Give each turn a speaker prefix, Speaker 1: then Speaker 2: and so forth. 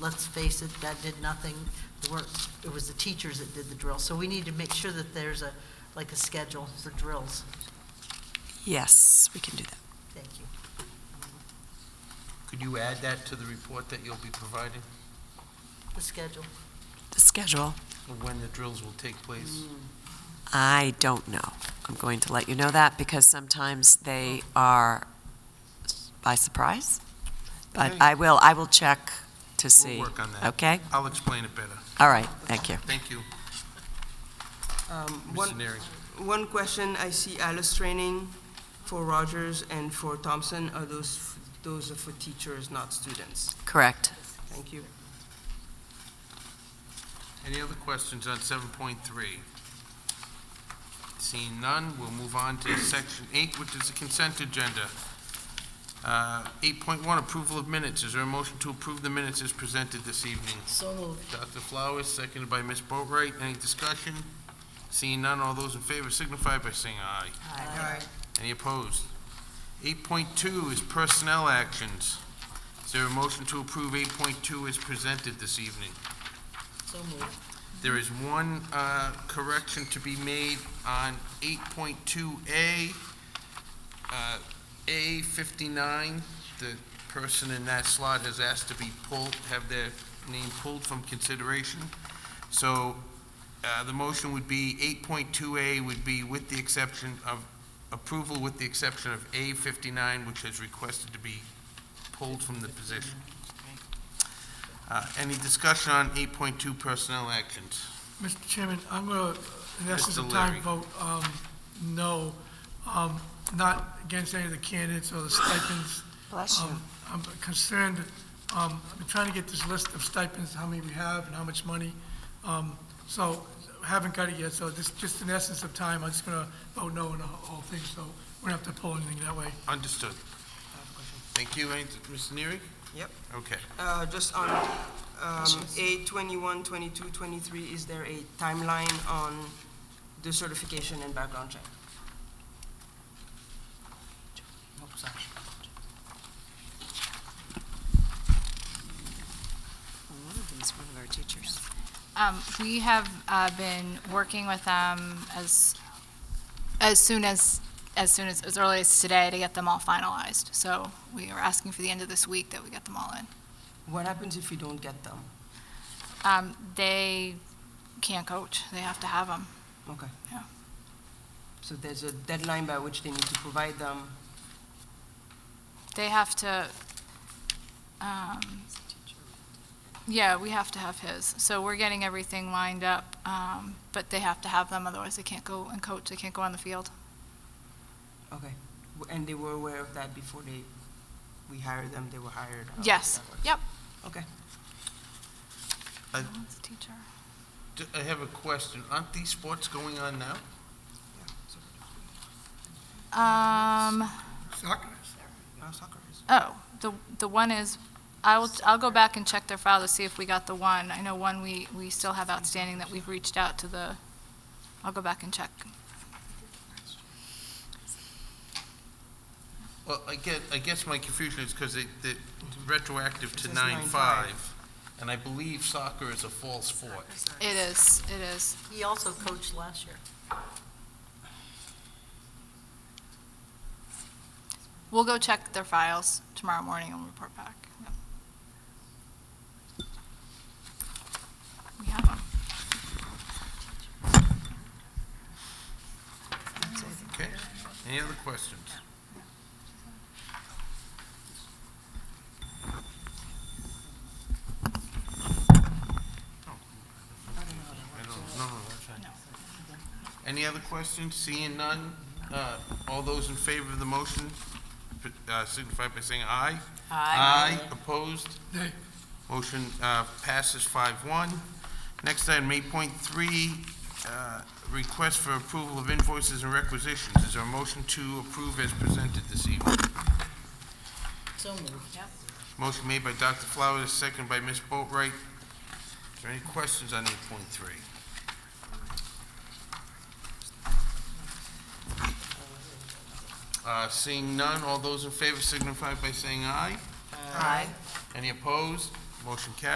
Speaker 1: let's face it, that did nothing. There weren't- It was the teachers that did the drill. So we need to make sure that there's a, like a schedule for drills.
Speaker 2: Yes, we can do that.
Speaker 1: Thank you.
Speaker 3: Could you add that to the report that you'll be providing,
Speaker 1: The schedule.
Speaker 2: The schedule,
Speaker 3: of when the drills will take place?
Speaker 2: I don't know. I'm going to let you know that because sometimes they are s- by surprise. But
Speaker 3: Okay.
Speaker 2: I will, I will check to see.
Speaker 3: We'll work on that.
Speaker 2: Okay,
Speaker 3: I'll explain it better.
Speaker 2: all right, thank you.
Speaker 3: Thank you,
Speaker 4: Um,
Speaker 3: Mr.
Speaker 4: One,
Speaker 3: Neary.
Speaker 4: one question, I see Alice training for Rogers and for Thompson, are those, f- those are for teachers, not students?
Speaker 2: Correct.
Speaker 4: Thank you.
Speaker 3: Any other questions on seven point three? Seeing none, we'll move on to section eight, which is the consent agenda. Uh, Eight point one, approval of minutes. Is there a motion to approve the minutes as presented this evening?
Speaker 1: So moved.
Speaker 3: Dr. Flowers, seconded by Ms. Boatright. Any discussion? Seeing none, all those in favor signify by saying aye.
Speaker 1: Aye.
Speaker 3: Any opposed? Eight point two is personnel actions. Is there a motion to approve eight point two as presented this evening?
Speaker 1: So moved.
Speaker 3: There is one uh, correction to be made on 8.2A, uh, A59. The person in that slot has asked to be pulled, have their name pulled from consideration. So uh, the motion would be, 8.2A would be with the exception of, approval with the exception of A59, which has requested to be pulled from the position. Uh, Any discussion on 8.2 personnel actions?
Speaker 5: Mr. Chairman, I'm going to, in essence, a
Speaker 3: Mr. Leary.
Speaker 5: time vote, um, no, um, not against any of the candidates or the stipends.
Speaker 2: Bless you.
Speaker 5: Um, I'm concerned, um, I've been trying to get this list of stipends, how many we have and how much money. Um, So, haven't got it yet, so this, just in essence of time, I'm just going to vote no on the whole thing, so we don't have to pull anything that way.
Speaker 3: Understood. Thank you. Any- Mr. Neary?
Speaker 4: Yep.
Speaker 3: Okay.
Speaker 4: Uh, Just on um, A 21, 22, 23, is there a timeline on the certification and background check?
Speaker 2: One of them is one of our teachers.
Speaker 6: Um, we have, uh, been working with them as, as soon as, as soon as, as early as today to get them all finalized. So we are asking for the end of this week that we get them all in.
Speaker 4: What happens if we don't get them?
Speaker 6: Um, they can't coach, they have to have them.
Speaker 4: Okay.
Speaker 6: Yeah.
Speaker 4: So there's a deadline by which they need to provide them.
Speaker 6: They have to, um, yeah, we have to have his. So we're getting everything lined up, um, but they have to have them, otherwise they can't go and coach, they can't go on the field.
Speaker 4: Okay. W- And they were aware of that before they, we hired them, Oh, they were hired? How does
Speaker 6: Yes,
Speaker 4: that work?
Speaker 6: yep.
Speaker 4: Okay.
Speaker 3: I-
Speaker 6: One's a teacher.
Speaker 3: D- I have a question. Aren't these sports going on now?
Speaker 6: Um,
Speaker 5: Soccer,
Speaker 4: Uh, soccer is-
Speaker 6: oh, the, the one is, I will, I'll go back and check their file to see if we got the one. I know one we, we still have outstanding that we've reached out to the, I'll go back and check.
Speaker 3: Well, I get, I guess my confusion is because it, it retroactive to
Speaker 4: says
Speaker 3: nine
Speaker 4: 9-5.
Speaker 3: five, and I believe soccer is a fall sport.
Speaker 6: It is, it is.
Speaker 1: He also coached last year.
Speaker 6: We'll go check their files tomorrow morning and report back. Yep. We have 'em.
Speaker 3: Okay? Any other questions? Oh, I don't, no, no, that's fine. Any other questions? Seeing none, uh, all those in favor of the motion uh, signify by saying aye. Aye. opposed?
Speaker 5: Nay.
Speaker 3: Motion uh, passes five one. Next item, eight point three, Uh, request for approval of invoices and requisitions. Is there a motion to approve as presented this evening?
Speaker 1: So moved.
Speaker 3: Motion made by Dr. Flowers, second by Ms. Boatright. Is there any questions on eight point three? Uh, Seeing none, Uh, all those in favor signify by saying aye. Aye. Any opposed? Motion carries.